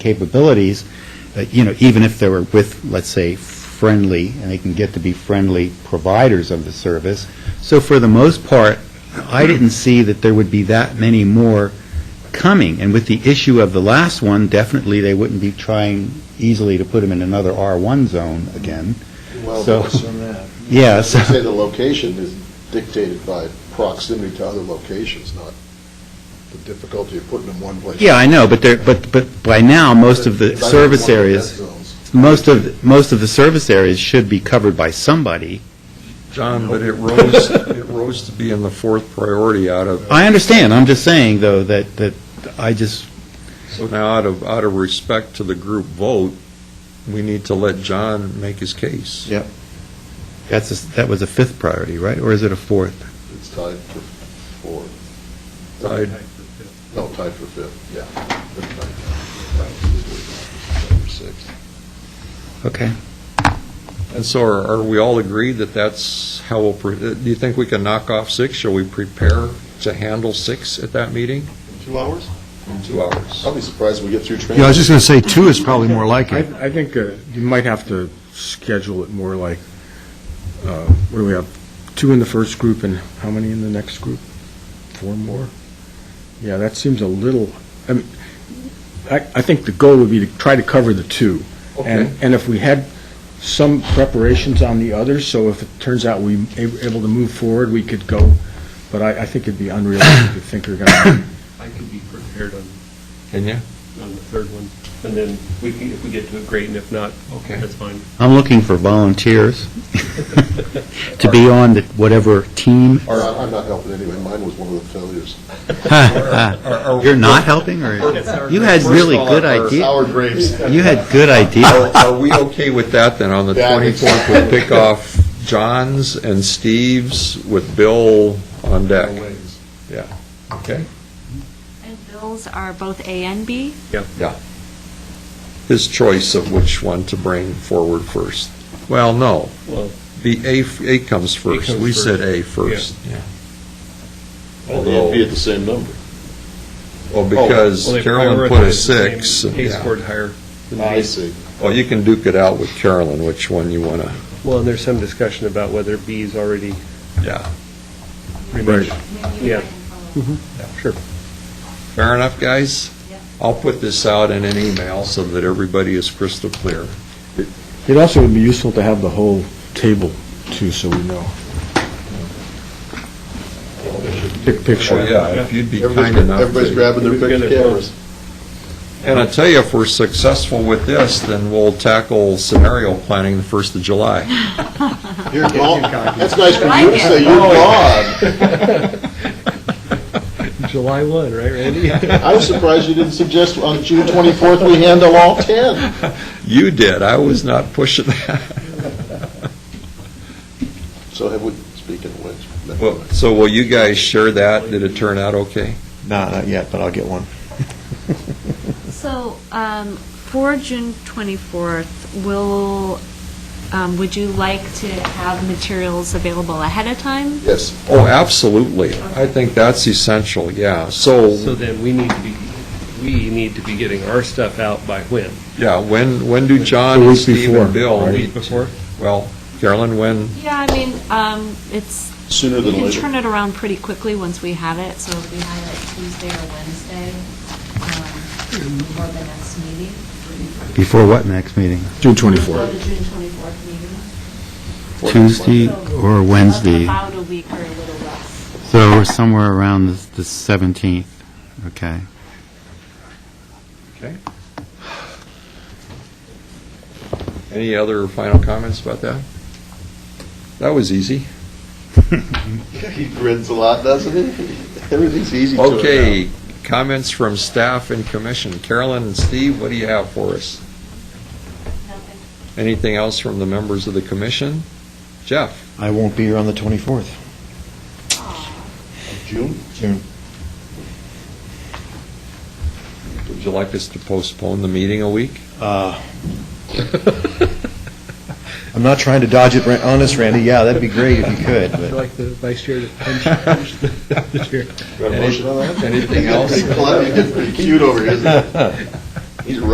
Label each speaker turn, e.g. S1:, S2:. S1: capabilities, uh, you know, even if they were with, let's say, friendly, and they can get to be friendly providers of the service. So for the most part, I didn't see that there would be that many more coming. And with the issue of the last one, definitely they wouldn't be trying easily to put them in another R1 zone again.
S2: Well,
S1: So-
S2: worse than that.
S1: Yeah, so-
S2: I'd say the location is dictated by proximity to other locations, not the difficulty of putting them one place.
S1: Yeah, I know, but they're, but, but by now, most of the
S2: Because I don't
S1: service
S2: want dead
S1: areas,
S2: zones.
S1: most of, most of the service areas should be covered by somebody.
S3: John, but it rose, it rose to be in the fourth priority out of,
S1: I understand, I'm just saying, though, that, that I just,
S3: so now out of, out of respect to the group vote, we need to let John make his case.
S1: Yep. That's, a- that was a fifth priority, right? Or is it a fourth?
S2: It's tied for four.
S3: Tied.
S2: No, tied for fifth, yeah. They're tied. Number six.
S1: Okay.
S3: And so are are we all agreed that that's how we'll, pre- uh, do you think we can knock off six? Shall we prepare to handle six at that meeting?
S2: Two hours?
S3: Two hours.
S2: I'll be surprised when we get through training.
S4: Yeah, I was just going to say, two is probably more like
S5: I,
S4: it.
S5: I think uh, you might have to schedule it more like, uh, what do we have, two in the first group and how many in the next group? Four more? Yeah, that seems a little, I mean, I, I think the goal would be to try to cover the two.
S3: Okay.
S5: And, and if we had some preparations on the others, so if it turns out we a- able to move forward, we could go, but I, I think it'd be unrealistic to think we're going to,
S6: I could be prepared on,
S3: Can you?
S6: on the third one, and then we can, if we get to it, great, and if not,
S3: Okay.
S6: that's fine.
S1: I'm looking for volunteers to be on the whatever team.
S2: All right, I'm not helping anyway, mine was one of the failures.
S1: You're not helping, or? You had
S3: First
S1: really
S3: of all,
S1: good
S3: our-
S1: ideas.
S2: Sour grapes.
S1: You had good ideas.
S3: Are are we okay with that, then, on the
S2: Yeah, I think so.
S3: 24th, we pick off John's and Steve's with Bill on deck?
S2: ways.
S3: Yeah, okay.
S7: And bills are both A and B?
S3: His choice of which one to bring forward first. Well, no,
S6: Well,
S3: the A, f- A comes first.
S6: comes
S3: We said
S6: first. Oh,
S3: A first. Yeah.
S2: Well, they'd be at the same number.
S3: Well, because
S6: well, they
S3: Carolyn put
S6: prioritize
S3: a
S6: the same
S3: six. and-
S6: Case
S3: yeah.
S6: scored higher.
S2: I see.
S3: Well, you can duke it out with Carolyn, which one you want to,
S6: Well, and there's some discussion about whether B is already
S3: yeah.
S6: pretty much. Yeah.
S4: Mm-hmm.
S6: Sure.
S3: Fair enough, guys?
S7: Yeah.
S3: I'll put this out in an email so that everybody is crystal clear.
S5: it also would be useful to have the whole table too, so we know. Pic- Picture.
S3: Oh, yeah, if you'd be kind
S2: Everybody's
S3: enough to...
S2: everybody's grabbing their
S6: Everybody's
S2: picture
S6: gonna-
S2: cameras.
S3: And I tell you, if we're successful with this, then we'll tackle scenario planning the first of July.
S2: You're gone. That's nice for
S7: I
S2: you to
S7: like
S2: say, you're gone.
S6: July one, right, Randy?
S2: I was surprised you didn't suggest on June 24th, we handle all 10.
S3: You did, I was not pushing that.
S2: So have we, speaking of which. never
S3: Well,
S2: mind.
S3: So will you guys share that? Did it turn out okay?
S4: No, not yet, but I'll get one.
S7: So, um, for June 24th, will, um, would you like to have materials available ahead of time?
S2: Yes,
S3: Oh, absolutely. I think that's essential, yeah.
S6: So
S3: So,
S6: then we need to be, we need to be getting our stuff out by when?
S3: yeah, when, when do John
S5: The
S3: and
S5: week
S3: Steve
S5: before,
S3: and Bill
S6: A
S3: meet?
S6: week before?
S3: Well, Carolyn, when,
S7: Yeah, I mean, um, it's,
S2: sooner
S7: we
S2: than
S7: can
S2: later.
S7: turn it around pretty quickly once we have it, so if we have it Tuesday or Wednesday, um, before the next meeting.
S1: Before what next meeting?
S5: June
S7: Before
S5: 24th.
S7: the June 24th meeting.
S1: Tuesday or Wednesday?
S7: About a week or a little less.
S1: So we're somewhere around the the 17th, okay?
S3: any other final comments about that? That was easy.
S2: He grins a lot, doesn't he? Everything's easy to him now.
S3: Okay, comments from staff and commission. Carolyn and Steve, what do you have for us?
S7: Nothing.
S3: Anything else from the members of the commission? Jeff?
S4: I won't be here on the 24th.
S2: June?
S3: Would you like us to postpone the meeting a week?
S4: Uh, I'm not trying to dodge it, Ran- honest, Randy, yeah, that'd be great if you could, but...
S6: like the vice chair to punch the chair.
S2: Got a motion on that?
S3: Anything else?
S2: He's getting pretty cute over here, isn't he? He's